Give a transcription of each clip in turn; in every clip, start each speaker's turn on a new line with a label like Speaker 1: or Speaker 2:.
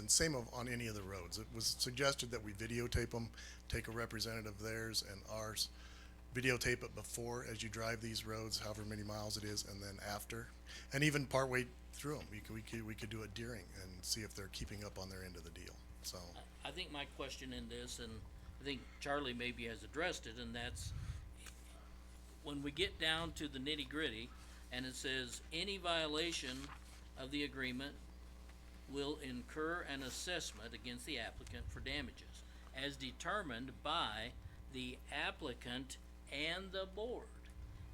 Speaker 1: and same of, on any of the roads. It was suggested that we videotape them, take a representative of theirs and ours, videotape it before as you drive these roads, however many miles it is, and then after. And even partway through them, we could, we could, we could do a deering and see if they're keeping up on their end of the deal, so.
Speaker 2: I think my question in this, and I think Charlie maybe has addressed it, and that's when we get down to the nitty gritty, and it says, any violation of the agreement will incur an assessment against the applicant for damages as determined by the applicant and the board.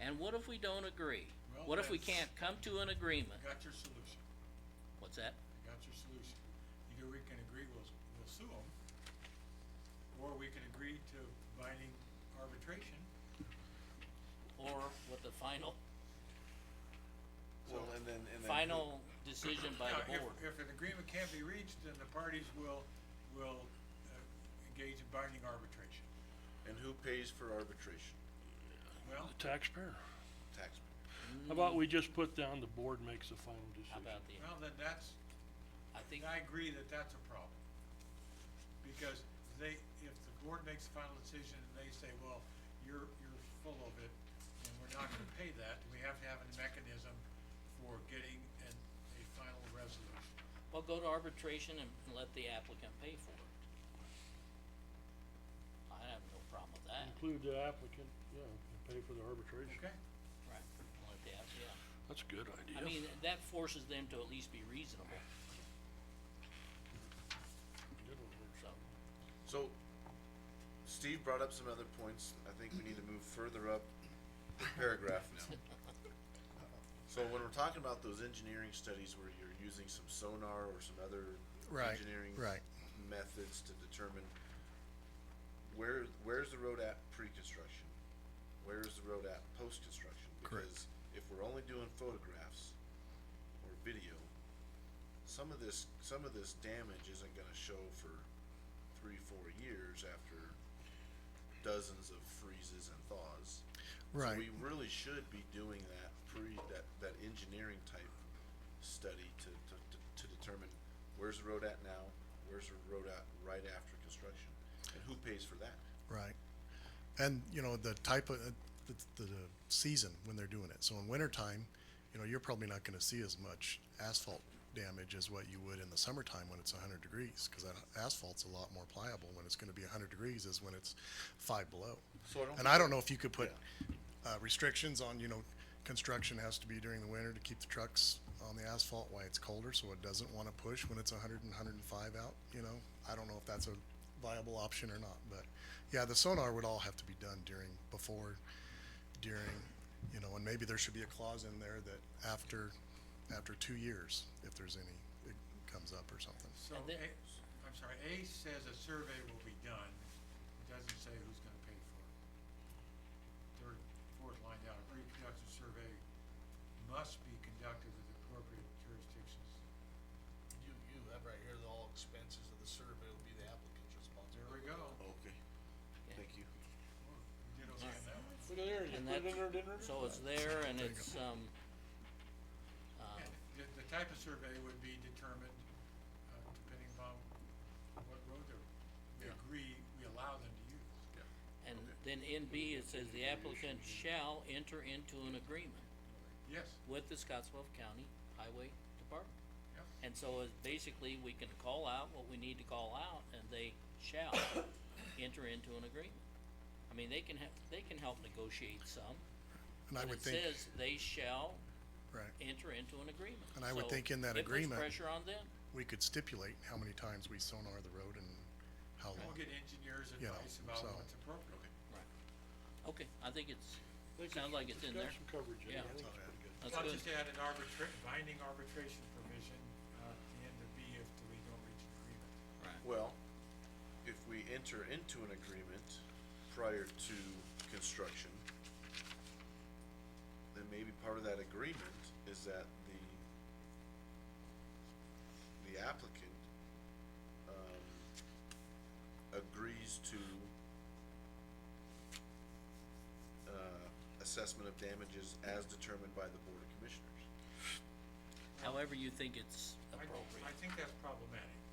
Speaker 2: And what if we don't agree?
Speaker 3: Well,
Speaker 2: What if we
Speaker 3: that's-
Speaker 2: can't come to an agreement?
Speaker 3: Got your solution,
Speaker 2: What's that?
Speaker 3: I got your solution. Either we can agree we'll, we'll sue them, or we can agree to binding arbitration.
Speaker 2: Or what the final,
Speaker 4: Well, and then, and then.
Speaker 2: final decision by
Speaker 3: Now,
Speaker 2: the
Speaker 3: if-
Speaker 2: board?
Speaker 3: If an agreement can't be reached, then the parties will, will uh, engage in binding arbitration.
Speaker 4: who- And who pays for arbitration?
Speaker 3: Well,
Speaker 5: The taxpayer.
Speaker 4: Taxpayer.
Speaker 5: How about we just put down the board makes the final
Speaker 2: How
Speaker 5: decision?
Speaker 2: about the,
Speaker 3: well, then that's,
Speaker 2: I think,
Speaker 3: I agree that that's a problem. Because they, if the board makes the final decision and they say, well, you're, you're full of it and we're not gonna pay that, we have to have a mechanism for getting an, a final resolution.
Speaker 2: well, go to arbitration and and let the applicant pay for it. I have no problem with that,
Speaker 5: Include the applicant, yeah, and pay for the arbitration.
Speaker 3: Okay?
Speaker 2: right, let the, app- yeah,
Speaker 5: That's a good idea.
Speaker 2: I mean, that forces them to at least be reasonable,
Speaker 5: Good one, Rich.
Speaker 2: so,
Speaker 4: So, Steve brought up some other points, I think we need to move further up the paragraph now. So when we're talking about those engineering studies where you're using some sonar or some other
Speaker 1: Right,
Speaker 4: engineering
Speaker 1: right.
Speaker 4: methods to determine where, where's the road at pre-construction? Where's the road at post-construction?
Speaker 1: Correct.
Speaker 4: Because if we're only doing photographs or video, some of this, some of this damage isn't gonna show for three, four years after dozens of freezes and thaws.
Speaker 1: Right.
Speaker 4: So we really should be doing that pre, that, that engineering type study to, to, to, to determine where's the road at now, where's the road at right after construction, and who pays for that?
Speaker 1: Right. And, you know, the type of, uh, the, the season when they're doing it. So in wintertime, you know, you're probably not gonna see as much asphalt damage as what you would in the summertime when it's hundred degrees, cause that asphalt's a lot more pliable when it's gonna be hundred degrees as when it's five below.
Speaker 4: So I don't
Speaker 1: And I don't know if you could put, uh, restrictions on, you know, construction has to be during the winter to keep the trucks on the asphalt while it's colder, so it doesn't wanna push when it's hundred and hundred and five out, you know? I don't know if that's a viable option or not, but, yeah, the sonar would all have to be done during, before, during, you know, and maybe there should be a clause in there that after, after two years, if there's any, it comes up or something.
Speaker 3: So
Speaker 2: And
Speaker 3: A,
Speaker 2: then-
Speaker 3: I'm sorry, A says a survey will be done, it doesn't say who's gonna pay for it. Third, fourth line down, a pre-production survey must be conducted with appropriate jurisdictions.
Speaker 6: You, you have right here, the all expenses of the survey will be the applicant's
Speaker 3: There
Speaker 6: responsibility.
Speaker 3: we go.
Speaker 4: Okay, thank you.
Speaker 3: We did okay on that one.
Speaker 6: Look at there, you
Speaker 2: and
Speaker 6: put it
Speaker 2: that's,
Speaker 6: in there, didn't it?
Speaker 2: so it's there and it's, um, uh,
Speaker 3: And The, the type of survey would be determined, uh, depending upon what road they're, they agree, we allow them to use.
Speaker 2: and then in B, it says the applicant shall enter into an agreement
Speaker 3: Yes,
Speaker 2: with the Scottsbluff County Highway Department.
Speaker 3: yep,
Speaker 2: And so it, basically, we can call out what we need to call out, and they shall enter into an agreement. I mean, they can have, they can help negotiate some,
Speaker 1: And I
Speaker 2: but
Speaker 1: would
Speaker 2: it
Speaker 1: think,
Speaker 2: says they shall
Speaker 1: right,
Speaker 2: enter into an agreement.
Speaker 1: And I would
Speaker 2: So
Speaker 1: think in that agreement-
Speaker 2: It puts pressure on them,
Speaker 1: we could stipulate how many times we sonar the road and how long.
Speaker 3: we'll get engineers'
Speaker 1: Yeah,
Speaker 3: advice about
Speaker 1: so-
Speaker 3: what's appropriate.
Speaker 2: right. Okay, I think it's,
Speaker 5: Think
Speaker 2: sounds like it's in there.
Speaker 5: Got some coverage in
Speaker 2: Yeah.
Speaker 5: there, I think it's pretty good.
Speaker 2: that's
Speaker 3: I'll
Speaker 2: good.
Speaker 3: just add an arbitra- binding arbitration provision, uh, at the end of B if we don't reach an agreement.
Speaker 2: Right.
Speaker 4: Well, if we enter into an agreement prior to construction, then maybe part of that agreement is that the, the applicant, um, agrees to uh, assessment of damages as determined by the Board of Commissioners.
Speaker 2: However you think it's
Speaker 3: I-
Speaker 2: appropriate.
Speaker 3: I think that's problematic.